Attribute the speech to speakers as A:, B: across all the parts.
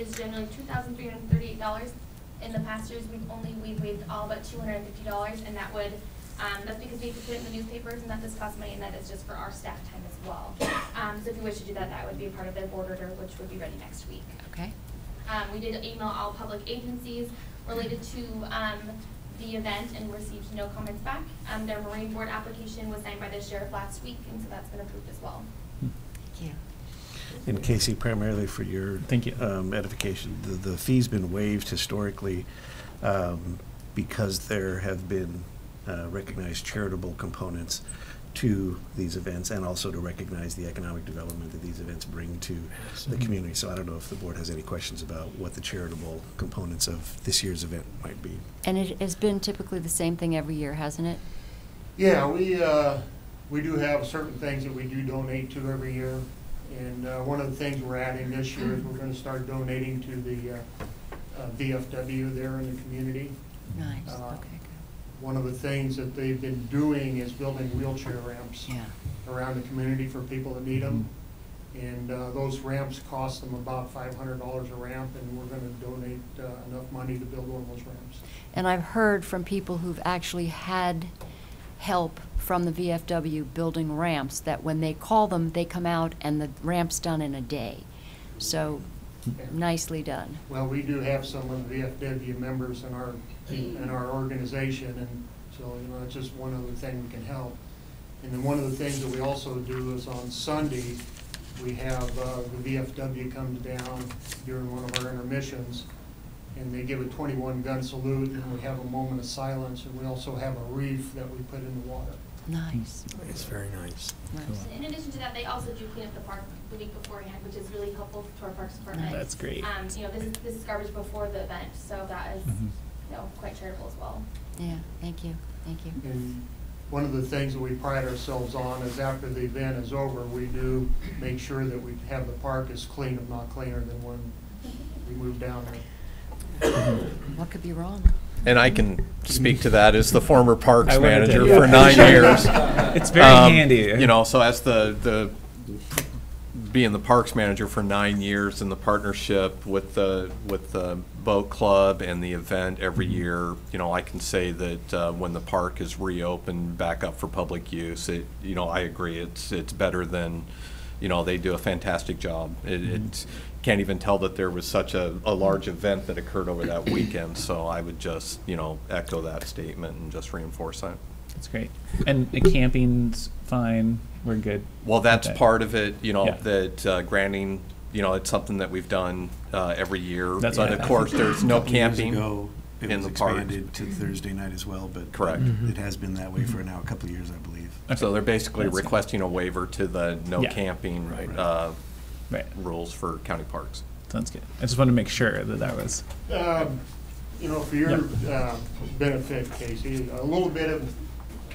A: is generally two thousand three hundred thirty-eight dollars. In the past years, we've only, we waived all but two hundred and fifty dollars, and that would, um, that's because we have to put it in the newspapers, and that does cost money, and that is just for our staff time as well. Um, so if you wish to do that, that would be a part of their board order, which would be ready next week.
B: Okay,
A: Um, we did email all public agencies related to, um, the event and received no comments back. Um, their Marine Board application was signed by the sheriff last week, and so that's been approved as well.
B: thank you.
C: And Casey, primarily for your.
D: Thank you.
C: um, Edification, the, the fee's been waived historically um, because there have been uh, recognized charitable components to these events and also to recognize the economic development that these events bring to the
D: Mhm.
C: community. So I don't know if the board has any questions about what the charitable components of this year's event might be.
B: And it has been typically the same thing every year, hasn't it?
E: Yeah, we, uh, we do have certain things that we do donate to every year. And, uh, one of the things we're adding this year is we're gonna start donating to the, uh, uh, VFW there in the community.
B: Nice,
E: Uh,
B: okay, good.
E: One of the things that they've been doing is building wheelchair ramps
B: Yeah,
E: around the community for people that need them. And, uh, those ramps cost them about five hundred dollars a ramp, and we're gonna donate, uh, enough money to build one of those ramps.
B: and I've heard from people who've actually had help from the VFW building ramps, that when they call them, they come out and the ramp's done in a day. So
E: And-
B: nicely done.
E: Well, we do have some of the VFW members in our, in our organization, and so, you know, it's just one other thing we can help. And then one of the things that we also do is on Sunday, we have, uh, the VFW come down during one of our intermissions, and they give a twenty-one gun salute, and we have a moment of silence, and we also have a wreath that we put in the water.
B: Nice,
C: It's very nice.
B: nice.
A: In addition to that, they also do clean up the park the week beforehand, which is really helpful to our parks department.
D: Oh, That's great.
A: Um, you know, this is, this is garbage before the event, so that is,
D: Mhm.
A: you know, quite charitable as well.
B: Yeah, thank you, thank you.
E: And one of the things that we pride ourselves on is after the event is over, we do make sure that we have the park as clean, if not cleaner than when we moved down there.
B: What could be wrong?
F: And I can speak to that as the former parks
D: I wanted to-
F: manager for nine years.
D: It's very
F: Um,
D: handy.
F: You know, so as the, the, being the parks manager for nine years and the partnership with the, with the boat club and the event every
D: Mm-hmm.
F: year, you know, I can say that uh, when the park is reopened back up for public use, it, you know, I agree, it's, it's better than, you know, they do a fantastic job. It,
D: Mm-hmm.
F: it's, can't even tell that there was such a, a large event that occurred over that weekend, so I would just, you know, echo that statement and just reinforce that.
D: It's great. And the camping's fine. We're good.
F: Well, that's
D: Okay.
F: part of it, you know,
D: Yeah.
F: that uh, granting, you know, it's something that we've done uh, every year.
D: That's what
F: But
D: I
F: of
D: thought.
F: course, there's no
C: Couple years
F: camping.
C: ago, It
F: in
C: was
F: the park.
C: expanded to Thursday night as well, but.
F: Correct.
D: Mm-hmm.
C: It has been that way for now, a couple of years, I believe.
F: So they're basically
D: That's fine.
F: requesting a waiver to the no
D: Yeah.
F: camping
C: Right.
F: uh,
D: Right.
F: rules for county parks.
D: Sounds good. I just wanted to make sure that that was.
E: Um, You know, for your uh, benefit, Casey, a little bit of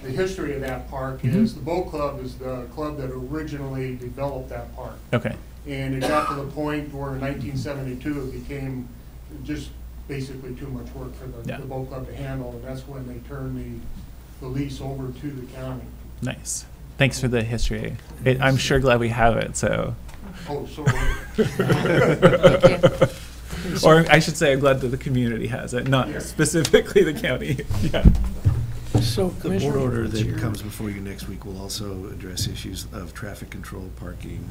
E: the history of that park is, the boat club is the club that originally developed that park.
D: Okay.
E: And it got to the point where in nineteen seventy-two, it became just basically too much work for the,
D: Yeah.
E: the boat club to handle, and that's when they turned the, the lease over to the county.
D: Nice. Thanks for the history. It, I'm sure glad we have it. So,
E: Oh, so,
B: Thank
D: or I should say, I'm glad that the community has it, not
E: Yeah.
D: specifically the county. yeah.
G: So
C: The board
G: Commissioner,
C: order that
G: Chair,
C: comes before you next week will also address issues of traffic control, parking,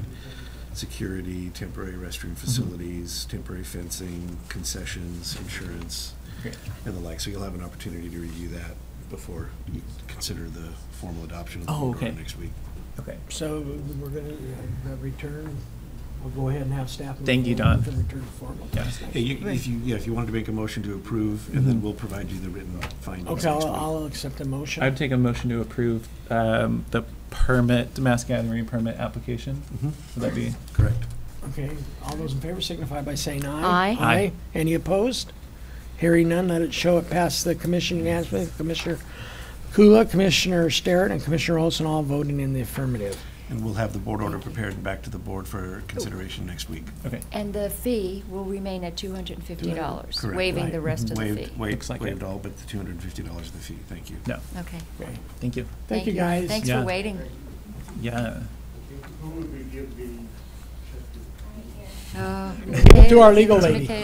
C: security, temporary
G: Mm-hmm.
C: restroom facilities, temporary fencing, concessions, insurance,
D: Great.
C: and the like. So you'll have an opportunity to review that before you consider the formal adoption of the
D: Oh,
C: board order
D: okay.
C: next week.
D: Okay.
G: so we're going to return, we'll go ahead and have staff. move
D: Thank you,
G: forward
D: Don.
G: with the return formal.
D: Yeah.
C: Yeah, you- if you, yeah, if you wanted to make a motion to approve, and then we'll provide you the written findings
G: Mm-hmm. Okay,
C: next
G: I'll,
C: week.
G: I'll accept the motion.
D: I'd take a motion to approve um, the permit, mass gathering permit application.
C: Mhm.
D: Would that be?
C: Correct.
G: Okay, all those in favor signify by saying
B: Aye.
G: aye.
D: Aye.
G: Any opposed? Hearing none, let it show it passed the commission unanimously. Commissioner Kula, Commissioner Sterrett, and Commissioner Olson all voting in the affirmative.
C: And we'll have the board order prepared and back to the board for consideration next week.
D: Okay.
B: And the fee will remain at two hundred and fifty dollars,
C: Correct.
B: waiving the
C: Right.
B: rest of the
C: Waived-
B: fee.
C: Waived,
D: Looks like it.
C: waived all but the two hundred and fifty dollars of the fee, thank you.
D: No.
B: Okay.
G: Okay.
D: Thank you.
G: Thank you, guys.
B: Thanks
D: Yeah.
B: for waiting.
D: Yeah.
E: who would we give the check to?
A: Right here.
B: Okay,
G: To our legal
B: Ms.
G: lady.
B: McKay.